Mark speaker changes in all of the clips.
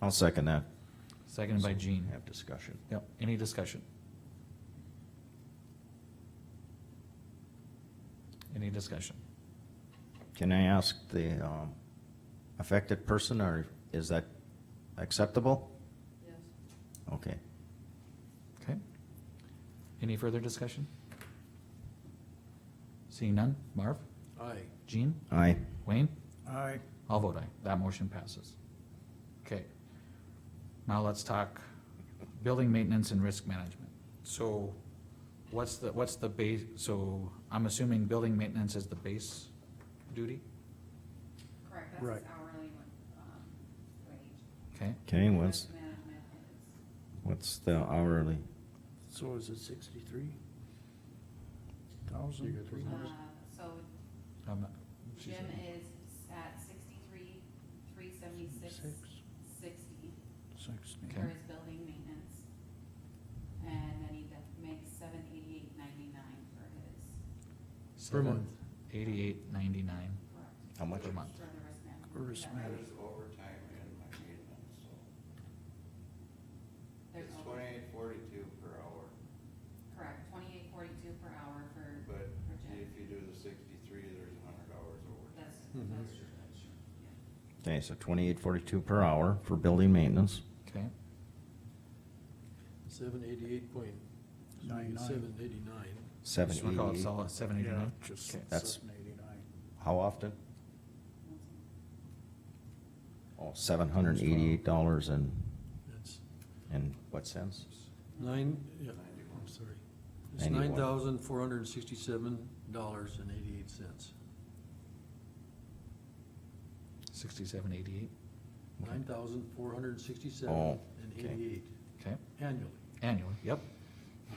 Speaker 1: I'll second that.
Speaker 2: Seconded by Gene.
Speaker 1: Have discussion.
Speaker 2: Yep, any discussion? Any discussion?
Speaker 1: Can I ask the um, affected person, or is that acceptable?
Speaker 3: Yes.
Speaker 1: Okay.
Speaker 2: Okay. Any further discussion? Seeing none, Marv,
Speaker 4: Aye.
Speaker 2: Gene,
Speaker 1: Aye.
Speaker 2: Wayne,
Speaker 4: Aye.
Speaker 2: I'll vote aye, that motion passes. Okay. Now let's talk building maintenance and risk management. So what's the, what's the base, so I'm assuming building maintenance is the base duty,
Speaker 3: Correct,
Speaker 4: Right.
Speaker 3: that's his hourly, um, wage.
Speaker 2: okay?
Speaker 1: Okay, what's,
Speaker 3: Risk management is-
Speaker 1: what's the hourly?
Speaker 4: So is it sixty-three? Thousand?
Speaker 3: Uh, so
Speaker 2: I'm not- she's-
Speaker 3: Jim is at sixty-three, three seventy-six, sixty
Speaker 4: Sixty.
Speaker 2: Okay.
Speaker 3: for his building maintenance. And then he def- makes seven eighty-eight ninety-nine for his,
Speaker 4: Per month.
Speaker 2: Eighty-eight ninety-nine
Speaker 3: correct,
Speaker 1: How much?
Speaker 2: per month.
Speaker 3: for the risk management.
Speaker 4: For risk
Speaker 3: Is that right?
Speaker 4: management.
Speaker 5: There's overtime in my maintenance, so
Speaker 3: There's
Speaker 5: it's
Speaker 3: over-
Speaker 5: twenty-eight forty-two per hour,
Speaker 3: Correct, twenty-eight forty-two per hour for,
Speaker 5: but
Speaker 3: for Jim,
Speaker 5: if you do the sixty-three, there's a hundred hours overtime.
Speaker 3: that's,
Speaker 4: Mhm.
Speaker 3: that's true, that's true, yeah.
Speaker 1: Okay, so twenty-eight forty-two per hour for building maintenance.
Speaker 2: Okay,
Speaker 6: Seven eighty-eight point,
Speaker 4: Nine nine.
Speaker 6: seven eighty-nine.
Speaker 1: Seven Uh,
Speaker 2: just wanna call it
Speaker 1: eighty.
Speaker 2: solid, seven eighty-nine? Okay.
Speaker 1: That's-
Speaker 4: Seven eighty-nine.
Speaker 1: How often?
Speaker 3: That's it.
Speaker 1: Oh, seven hundred and eighty-eight dollars and,
Speaker 6: That's
Speaker 1: and what cents?
Speaker 6: nine, yeah,
Speaker 5: Ninety-one.
Speaker 6: I'm sorry. It's
Speaker 1: Ninety-one.
Speaker 6: nine thousand four hundred and sixty-seven dollars and eighty-eight cents.
Speaker 2: Sixty-seven eighty-eight,
Speaker 6: Nine thousand four hundred and sixty-seven
Speaker 1: Oh,
Speaker 6: and
Speaker 1: okay.
Speaker 6: eighty-eight
Speaker 2: okay,
Speaker 6: annually.
Speaker 2: annually, yep,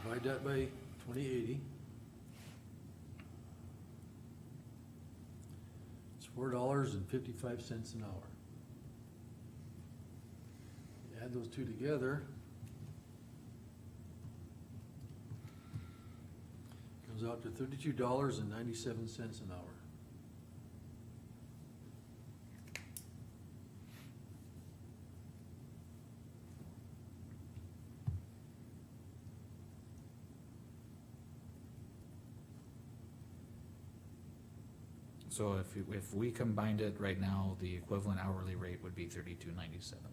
Speaker 6: Divide that by twenty eighty. It's four dollars and fifty-five cents an hour. You Add those two together. Comes out to thirty-two dollars and ninety-seven cents an hour.
Speaker 2: so if, you- if we combined it right now, the equivalent hourly rate would be thirty-two ninety-seven,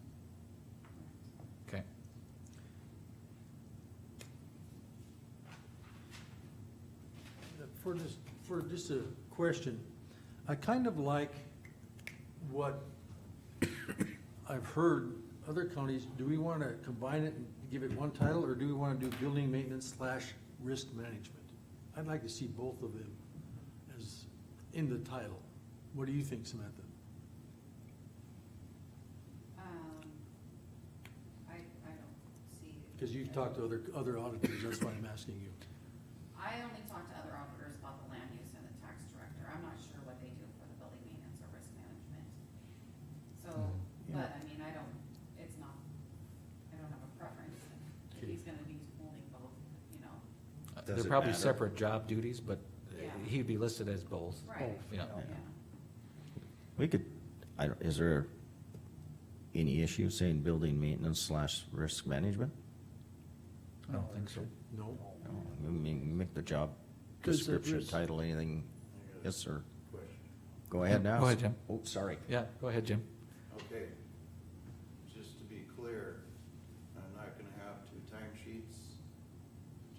Speaker 2: okay?
Speaker 6: For just, for just a question, I kind of like what I've heard other counties, do we want to combine it and give it one title, or do we want to do building maintenance slash risk management? I'd like to see both of them as in the title. What do you think, Samantha?
Speaker 3: Um, I, I don't see.
Speaker 6: Because you've talked to other, other auditors, that's why I'm asking you.
Speaker 3: I only talked to other auditors about the land use and the tax director, I'm not sure what they do for the building maintenance or risk management. So,
Speaker 4: Yeah.
Speaker 6: Mm-hmm.
Speaker 3: but I mean, I don't, it's not, I don't have a preference, if
Speaker 6: Okay.
Speaker 3: he's gonna be holding both, you know,
Speaker 2: Uh, They're
Speaker 1: Does it
Speaker 2: probably
Speaker 1: matter?
Speaker 2: separate job duties, but uh,
Speaker 3: Yeah.
Speaker 2: he'd be listed as both,
Speaker 3: right,
Speaker 2: yeah,
Speaker 3: yeah.
Speaker 1: We could, I, don't- is there any issue saying building maintenance slash risk management?
Speaker 2: I don't think so.
Speaker 6: No?
Speaker 1: No, Oh, I mean, Make the job
Speaker 4: Does the
Speaker 1: description,
Speaker 4: risk-
Speaker 1: title, anything,
Speaker 5: I got
Speaker 1: yes, sir.
Speaker 5: a question.
Speaker 1: Go ahead
Speaker 2: Yeah,
Speaker 1: now.
Speaker 2: go ahead, Jim.
Speaker 1: Oh, sorry.
Speaker 2: Yeah, go ahead, Jim.
Speaker 5: Okay, just to be clear, I'm not gonna have two timesheets,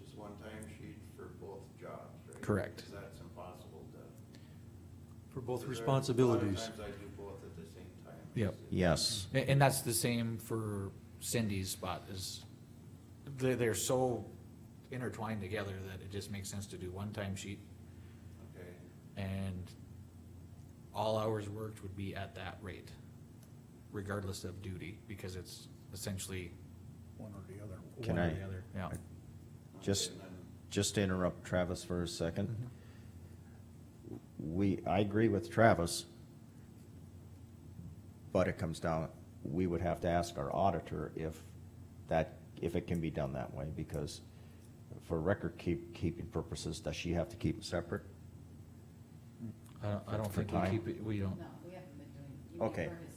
Speaker 5: just one timesheet for both jobs, right?
Speaker 2: Correct.
Speaker 5: Because that's impossible to.
Speaker 6: For both
Speaker 5: because there- A
Speaker 6: responsibilities.
Speaker 5: lot of times I do both at the same time.
Speaker 2: Yep.
Speaker 1: Yes,
Speaker 2: A- And, that's the same for Cindy's spot is, they're, they're so intertwined together that it just makes sense to do one time sheet
Speaker 5: Okay,
Speaker 2: and all hours worked would be at that rate, regardless of duty, because it's essentially
Speaker 4: One or the other.
Speaker 1: Can
Speaker 2: one or
Speaker 1: I-
Speaker 2: the other, yeah.
Speaker 5: okay,
Speaker 1: Just-
Speaker 5: and then-
Speaker 1: just to interrupt Travis for a second. We, I agree with Travis. But it comes down, we would have to ask our auditor if that, if it can be done that way, because for record keep, keeping purposes, does she have to keep it separate?
Speaker 2: I don't, I don't
Speaker 1: For
Speaker 2: think we
Speaker 1: time?
Speaker 2: keep it, we don't,
Speaker 3: No, we haven't been doing, you
Speaker 1: Okay,
Speaker 3: refer to